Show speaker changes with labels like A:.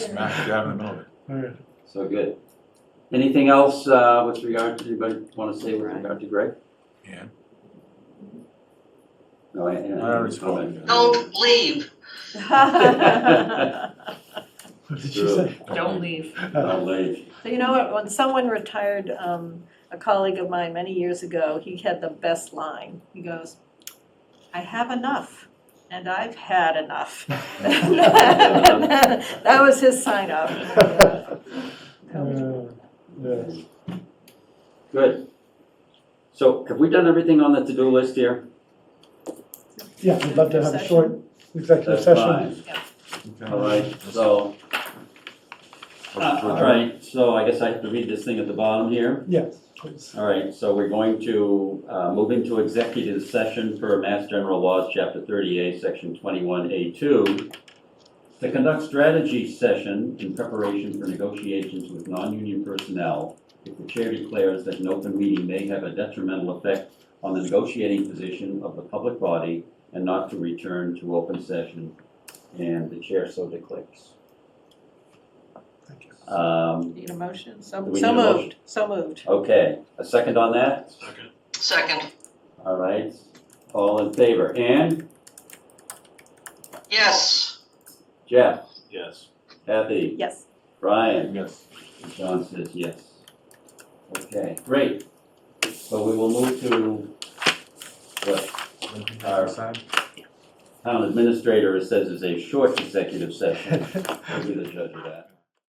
A: smack dab in the middle of it.
B: Alright,
C: So good. Anything else uh, with regard to, anybody want to say with regard to Greg?
A: Yeah.
C: No, I, I.
A: I already spoke.
D: Oh.
E: Don't leave.
D: So
B: what did
C: Sure.
B: you say?
D: Don't leave.
C: I'll leave.
D: you know what, when someone retired, um, a colleague of mine many years ago, he had the best line. He goes, I have enough and I've had enough. That was his sign off.
B: Uh, Yeah,
C: Good. So have we done everything on the to-do list here?
B: yeah, we'd love to have a short executive
C: That's
B: session.
C: fine.
A: Okay.
C: All right, so, uh, all right, so I guess I have to read this thing at the bottom here.
B: Yes, please.
C: All right, so we're going to, uh, move into executive session per Mass General Laws, Chapter 38, Section 21A2, to conduct strategy session in preparation for negotiations with non-union personnel if the chair declares that an open meeting may have a detrimental effect on the negotiating position of the public body and not to return to open session, and the chair so declares.
B: Thank you.
C: Um,
D: Need a motion?
C: Do
D: So
C: we
D: so
C: need a motion?
D: moved, so moved.
C: Okay, a second on that?
E: Second.
C: All right, all in favor, Ann,
E: Yes.
C: Jeff,
F: Yes.
C: Kathy,
D: Yes.
C: Brian,
A: Yes.
C: John says yes. Okay, great, so we will move to what Our- town administrator says is a short executive session, we'll be the judge of that.